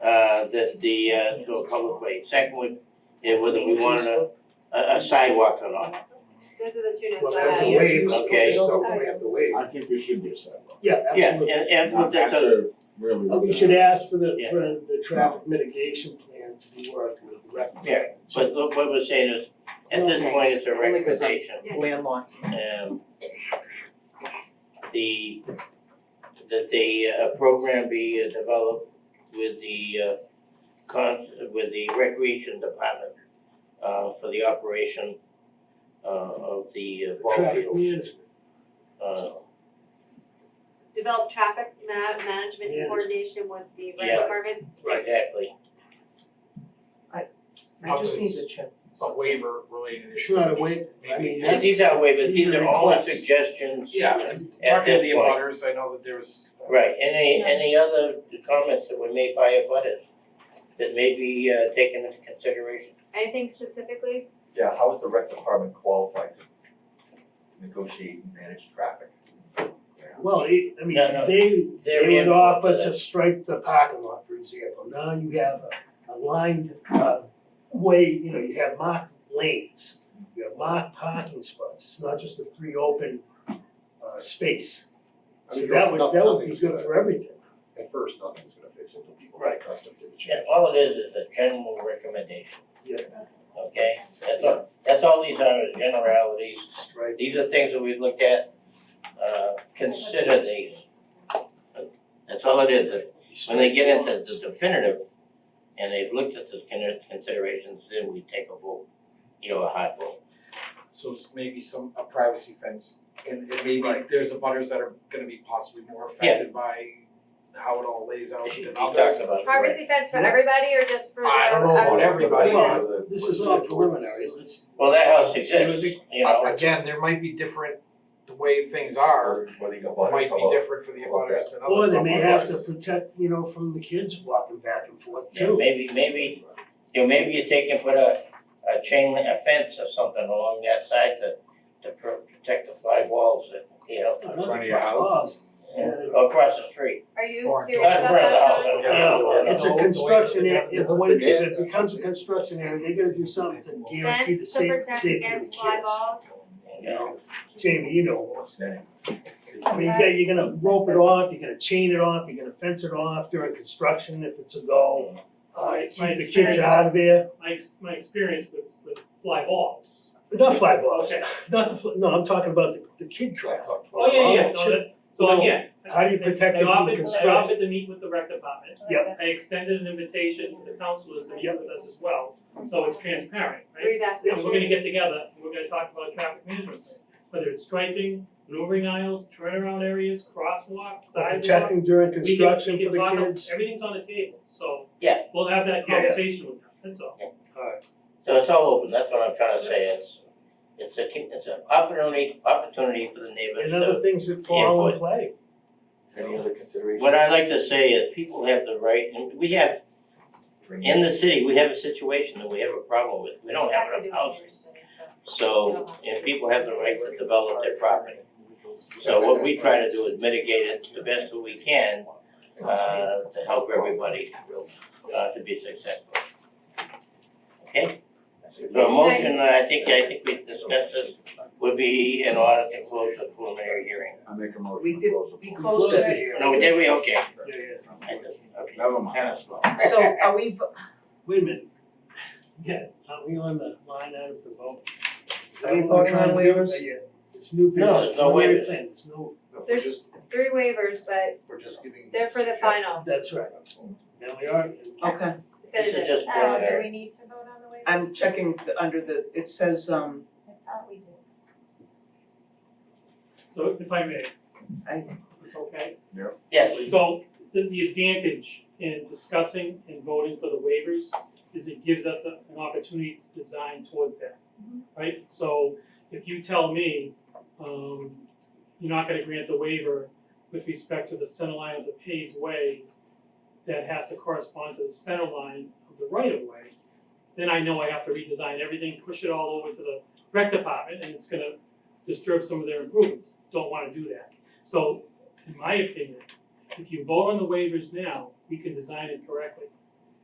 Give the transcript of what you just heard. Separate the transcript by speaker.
Speaker 1: the the uh to a public way. Second one, yeah, whether we wanted a a a sidewalk or not.
Speaker 2: Those are the two
Speaker 3: Well,
Speaker 2: notes I
Speaker 3: that's
Speaker 2: have.
Speaker 3: a wave,
Speaker 1: Okay.
Speaker 3: okay, so we have to waive.
Speaker 4: I think there should be a sidewalk.
Speaker 3: Yeah,
Speaker 1: Yeah,
Speaker 3: absolutely.
Speaker 1: and and put that to-
Speaker 4: After really.
Speaker 3: Uh, We should ask for the,
Speaker 1: Yeah.
Speaker 3: for the traffic mitigation plan to be worked with the rec.
Speaker 1: Yeah. but look, what we're saying is, at this point, it's a
Speaker 5: Only 'cause I'm-
Speaker 1: recommendation.
Speaker 5: landlocked.
Speaker 1: um the that the uh program be uh, developed with the uh con- with the recreation department uh for the operation uh of the uh, ball
Speaker 3: Traffic
Speaker 1: field.
Speaker 3: management.
Speaker 1: Uh
Speaker 2: Develop traffic ma- management
Speaker 3: Yeah.
Speaker 2: in coordination with the rec
Speaker 1: Yeah.
Speaker 2: department.
Speaker 1: exactly,
Speaker 5: I just need to check.
Speaker 6: a waiver related
Speaker 3: It's
Speaker 6: issue.
Speaker 3: not a
Speaker 6: just
Speaker 3: waiver, I
Speaker 6: maybe-
Speaker 3: mean,
Speaker 1: and these are waivers, these
Speaker 3: These are
Speaker 1: are all
Speaker 3: requests.
Speaker 1: suggestions.
Speaker 6: Yeah, and
Speaker 1: At
Speaker 6: talking
Speaker 1: this
Speaker 6: to the
Speaker 1: point.
Speaker 6: abutters, I know that there was. uh,
Speaker 1: Right, any any other comments that were made by abutters that may be uh taken into consideration?
Speaker 2: Anything specifically?
Speaker 7: Yeah, how is the rec department qualified to negotiate and manage traffic?
Speaker 3: Well, it, I mean,
Speaker 1: No, no.
Speaker 3: they,
Speaker 1: They're
Speaker 3: they would
Speaker 1: in
Speaker 3: offer
Speaker 1: for
Speaker 3: to
Speaker 1: that.
Speaker 3: stripe the parking lot, for example, now you have a, a lined, uh, way, you know, you have marked lanes. You have marked parking spots, it's not just a free open, uh, space,
Speaker 8: I
Speaker 3: so
Speaker 8: mean,
Speaker 3: that would,
Speaker 8: noth-
Speaker 3: that would be
Speaker 8: nothing's
Speaker 3: good
Speaker 8: gonna-
Speaker 3: for everything.
Speaker 8: At first, nothing's gonna fix it until people
Speaker 3: Right.
Speaker 8: get accustomed to the change.
Speaker 1: Yeah, all it is is a general recommendation.
Speaker 3: Yeah.
Speaker 1: Okay, that's all, that's all these are is generalities,
Speaker 3: Right.
Speaker 1: these are things that we looked at, uh consider these. That's all it is, when they get into the definitive and they've looked at the con- considerations, then we take a vote, you know, a hard vote.
Speaker 6: So s- maybe some, a privacy fence, and and maybe
Speaker 3: Right.
Speaker 6: there's abutters that are gonna be possibly more affected by how it all lays out
Speaker 1: He
Speaker 6: than
Speaker 1: talks
Speaker 6: others.
Speaker 1: about it, right?
Speaker 2: Privacy fence for
Speaker 3: Yeah.
Speaker 2: everybody or just for the?
Speaker 6: I don't know
Speaker 2: uh,
Speaker 6: about everybody.
Speaker 3: Well, This is all preliminary, let's,
Speaker 1: Well, that house
Speaker 6: See what
Speaker 1: exists, you
Speaker 6: Uh,
Speaker 1: know,
Speaker 6: Again, there might be different, the way things are,
Speaker 7: Whether you
Speaker 6: might be different for the
Speaker 7: how about
Speaker 6: abutters than others.
Speaker 3: or they may have to
Speaker 7: Otherwise-
Speaker 3: protect, you know, from the kids walking back and forth
Speaker 1: yeah,
Speaker 3: too.
Speaker 1: maybe, maybe, you know, maybe you take and put a a chain link fence or something along that side to to pro- protect the fly walls, and, you know,
Speaker 3: Another
Speaker 6: Front of your
Speaker 3: front
Speaker 6: house.
Speaker 3: laws. Yeah.
Speaker 1: or across the street.
Speaker 2: Are you
Speaker 6: Or-
Speaker 2: serious
Speaker 1: Not in
Speaker 2: about
Speaker 1: front of the
Speaker 2: that,
Speaker 1: house,
Speaker 2: John?
Speaker 1: I don't
Speaker 3: Yeah,
Speaker 1: know.
Speaker 3: it's a
Speaker 6: Yeah.
Speaker 3: construction area, if when if it
Speaker 8: Yeah.
Speaker 3: becomes a construction area, they gotta do something to guarantee the
Speaker 2: Fence to
Speaker 3: safe
Speaker 2: protect
Speaker 3: safety of the
Speaker 2: against fly
Speaker 3: kids.
Speaker 2: balls?
Speaker 3: You know, Jamie, you know, I mean, you
Speaker 2: Right.
Speaker 3: got, you're gonna rope it off, you're gonna chain it off, you're gonna fence it off during construction if it's a go. Uh,
Speaker 9: My- my
Speaker 3: keep the kids
Speaker 9: experience-
Speaker 3: out of there,
Speaker 9: my ex- my experience with with fly balls.
Speaker 3: But not fly balls,
Speaker 9: Okay,
Speaker 3: not the, fl- no, I'm talking about the the kid trap.
Speaker 9: oh yeah, yeah, yeah, no,
Speaker 3: Should-
Speaker 9: that, so yeah.
Speaker 3: How do you protect
Speaker 9: They
Speaker 3: them from the
Speaker 9: offered, they
Speaker 3: construction?
Speaker 9: offered to meet with the rec department.
Speaker 3: Yep.
Speaker 9: I extended an invitation to the councilors to meet
Speaker 3: Yep.
Speaker 9: with us as well, so it's transparent, right?
Speaker 2: Three baskets.
Speaker 9: And we're gonna get together, and we're gonna talk about traffic management, plan, whether it's striping, maneuvering aisles, turnaround areas, crosswalks, sidewalks.
Speaker 3: Protecting during
Speaker 9: We can-
Speaker 3: construction
Speaker 9: we
Speaker 3: for
Speaker 9: can
Speaker 3: the
Speaker 9: talk about-
Speaker 3: kids.
Speaker 9: Everything's on the table, so.
Speaker 1: Yeah.
Speaker 9: We'll have that
Speaker 3: Yeah, yeah.
Speaker 9: conversation with them, that's all.
Speaker 1: So it's all open, that's what I'm trying to say, it's it's a con- it's an opportunity opportunity for the neighbors
Speaker 3: And
Speaker 1: to.
Speaker 3: other things that fall in
Speaker 1: input.
Speaker 3: play.
Speaker 7: Any other considerations?
Speaker 1: What I like to say is people have the right, and we have, in the city, we have a situation that we have a problem with, we don't have enough houses. So, and people have the right to develop their property. So what we try to do is mitigate it the best that we can, uh, to help everybody, uh, to be successful. Okay? So a motion, I think, I think we discussed this, would be in order to close the preliminary hearing.
Speaker 4: I make a
Speaker 5: We
Speaker 4: motion to
Speaker 5: did-
Speaker 4: close the.
Speaker 5: we
Speaker 4: pool.
Speaker 5: Close it.
Speaker 3: here.
Speaker 1: No, did we? Okay.
Speaker 3: Yeah, yeah.
Speaker 1: I just- okay.
Speaker 4: Never mind.
Speaker 1: Kinda slow.
Speaker 5: So are we, vo-
Speaker 3: Wait a minute. Yeah, are we on the line out of the vote?
Speaker 5: Are we voting on waivers?
Speaker 3: Uh, Yeah, It's new business.
Speaker 1: No, there's no waivers.
Speaker 3: There's no,
Speaker 8: We're
Speaker 2: There's-
Speaker 8: just,
Speaker 2: Three waivers, but
Speaker 8: we're just giving.
Speaker 2: they're for the
Speaker 8: suggestions.
Speaker 2: final
Speaker 3: that's right. Now we are.
Speaker 5: okay,
Speaker 1: This is
Speaker 2: definitive. Um,
Speaker 1: just preliminary.
Speaker 2: we need to vote on the waivers?
Speaker 5: I'm checking the, under the, it says, um,
Speaker 2: I thought we did.
Speaker 9: So if I may.
Speaker 5: I-
Speaker 9: It's okay.
Speaker 1: Yes,
Speaker 9: So the the advantage in discussing and voting for the waivers is it gives us a- an opportunity to design towards that. Right, so if you tell me, um, you're not gonna grant the waiver with respect to the center line of the paved way that has to correspond to the center line of the right of way, then I know I have to redesign everything, push it all over to the rec department, and it's gonna disturb some of their improvements, don't wanna do that. So, in my opinion, if you vote on the waivers now, we can design it correctly.